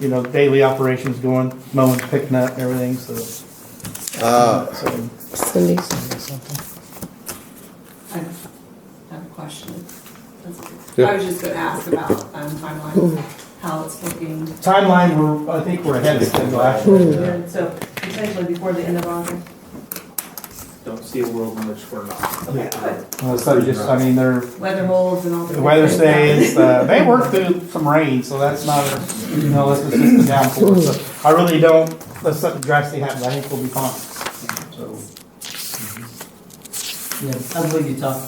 you know, daily operations going, mowing, picking up, everything, so. So, Cindy's. I have I have a question. That's- Yeah. I was just gonna ask about um, timeline, how it's looking. Timeline, we're, I think we're ahead of schedule, actually. Yeah, So potentially before the end of August. Don't see a world in which we're not. Yeah. Uh, So just, I mean, they're, Weather holds and all the. the weather stays, uh, they worked through some rain, so that's not, a- you know, that's just a downpour. So I really don't, unless something drastic happens, I think we'll be fine, so. Yeah, I believe you talked,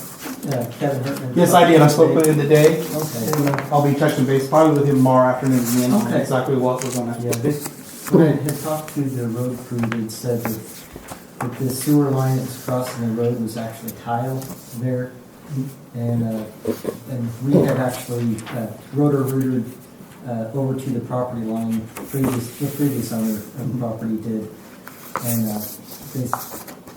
uh, Kevin Hartman. Yes, I did, I spoke with him today, Okay. and uh, I'll be touching base probably with him tomorrow afternoon, again, on Okay. exactly what was gonna Yeah, this, when I had talked to the road crew, they said that, that the sewer line that was crossing the road was actually tile there. And, uh, and we had actually, uh, rotor rooted, uh, over to the property line, previous, the previous owner of the property did. And, uh, this,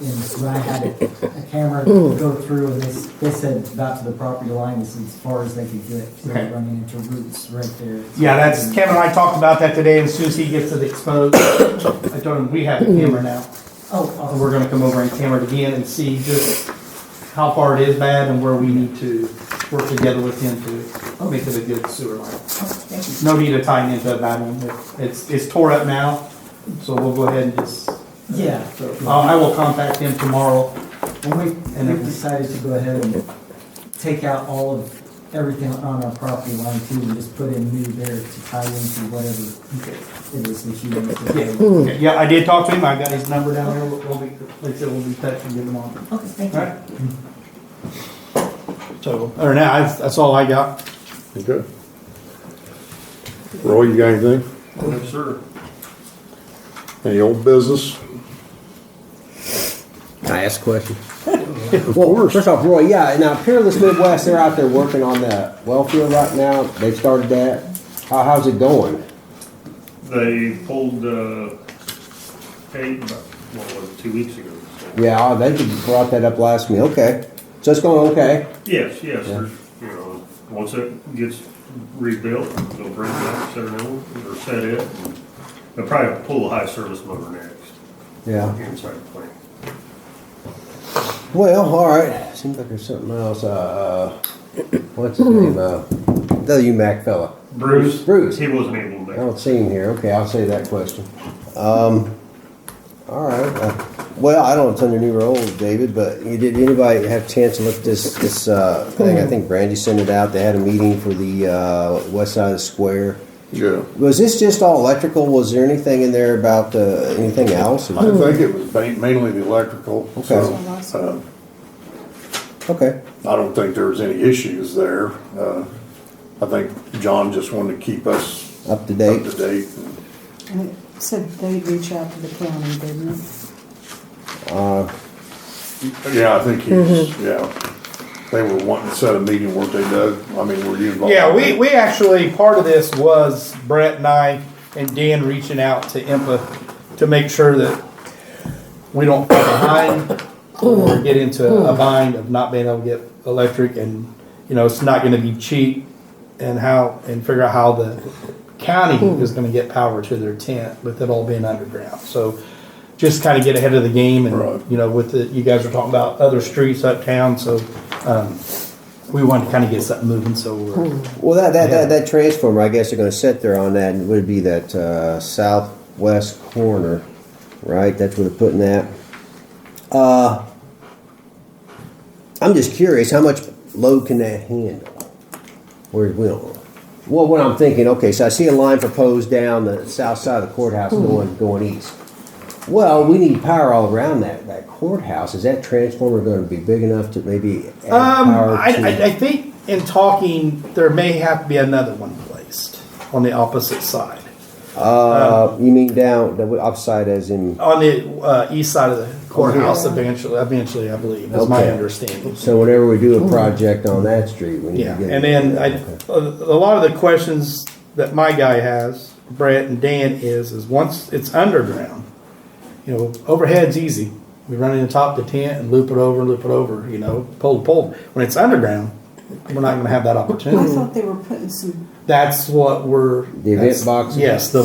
and when I had a a camera go through and this, this said about to the property line is as far as they could get. So Okay. running into roots right there. Yeah, that's, Kevin and I talked about that today, and as soon as he gets it exposed, I told him, we have a camera now. Oh, So awesome. we're gonna come over and camera it again and see just how far it is bad and where we need to work together with him to make it a good sewer line. No need to tie it into a bad one, it's, it's tore up now, so we'll go ahead and just, Yeah. so, uh, I will contact him tomorrow. And we, and we've decided to go ahead and take out all of, everything on our property line too, and just put in new there to tie into whatever Okay. it is that you want to Yeah, do. okay. yeah, I did talk to him, I got his number down there, we'll be, like I said, we'll be touching him tomorrow. Okay, thank Alright. So, or now, that's, that's all I got. Okay. Roy, you got anything? No, sir. Any old business? Can I ask a question? course. Well, first off, Roy, yeah, now Peerless Midwest, they're out there working on that well field right now. They've started that. How, how's it going? They pulled, uh, eight, what was it, two weeks ago? so- Yeah, oh, they could brought that up last meeting. Okay. So it's going okay. Yes, yes, there's, you know, once it gets rebuilt, they'll bring it up, set it on, or set it. and They'll probably pull the high service motor next, Yeah. inside the plant. Well, all right. Seems like there's something else. Uh, uh, what's his name? Uh, the UMAC fella. Bruce? Bruce. He wasn't able to I make it. don't see him here. Okay, I'll say that question. Um, all right. Uh, well, I don't know it's under new role, David, but you, did anybody have a chance to look at this this uh, thing? I think Brandy sent it out. They had a meeting for the uh, west side of the square. Yeah. Was this just all electrical? Was there anything in there about uh, anything else? I think it was ma- mainly the electrical, so, uh, Okay. I don't think there was any issues there. Uh, I think John just wanted to keep us Up to up to date. date. And it said they'd reach out to the county, didn't it? Uh, Yeah, I think he's, yeah. They were wanting to set a meeting, weren't they, Doug? I mean, were you involved? Yeah, we, we actually, part of this was Brett and I and Dan reaching out to IMPA to make sure that we don't fall behind or get into a bind of not being able to get electric and, you know, it's not gonna be cheap and how, and figure out how the county is gonna get power to their tent with it all being underground. So just kinda get ahead of the game Right. and, you know, with the, you guys were talking about other streets uptown, so, um, we wanted to kinda get something moving, so we're, Well, that that, Yeah. that that transformer, I guess, they're going to sit there on that, and would be that uh, southwest corner, right? That's where they're putting that. Uh, I'm just curious, how much load can that handle? Where we don't. Well, what I'm thinking, okay, so I see a line proposed down the south side of the courthouse going going east. Well, we need power all around that, that courthouse. Is that transformer going to be big enough to maybe add Um, power I, to? I, I think in talking, there may have to be another one placed on the opposite side, Uh, you mean down the upside as in? on the uh, east side of the courthouse. Eventually, eventually, I believe is my Oh, Okay. understanding. So whenever we do a project on that street, we need Yeah, to get. and then I, a a lot of the questions that my guy has, Brett and Dan, is is once it's underground, you know, overhead's easy. We run in the top of the tent and loop it over, loop it over, you know, pole to pole. When it's underground, we're not going to have that I opportunity. thought they were putting some That's what we're The event that's- box? Yes, the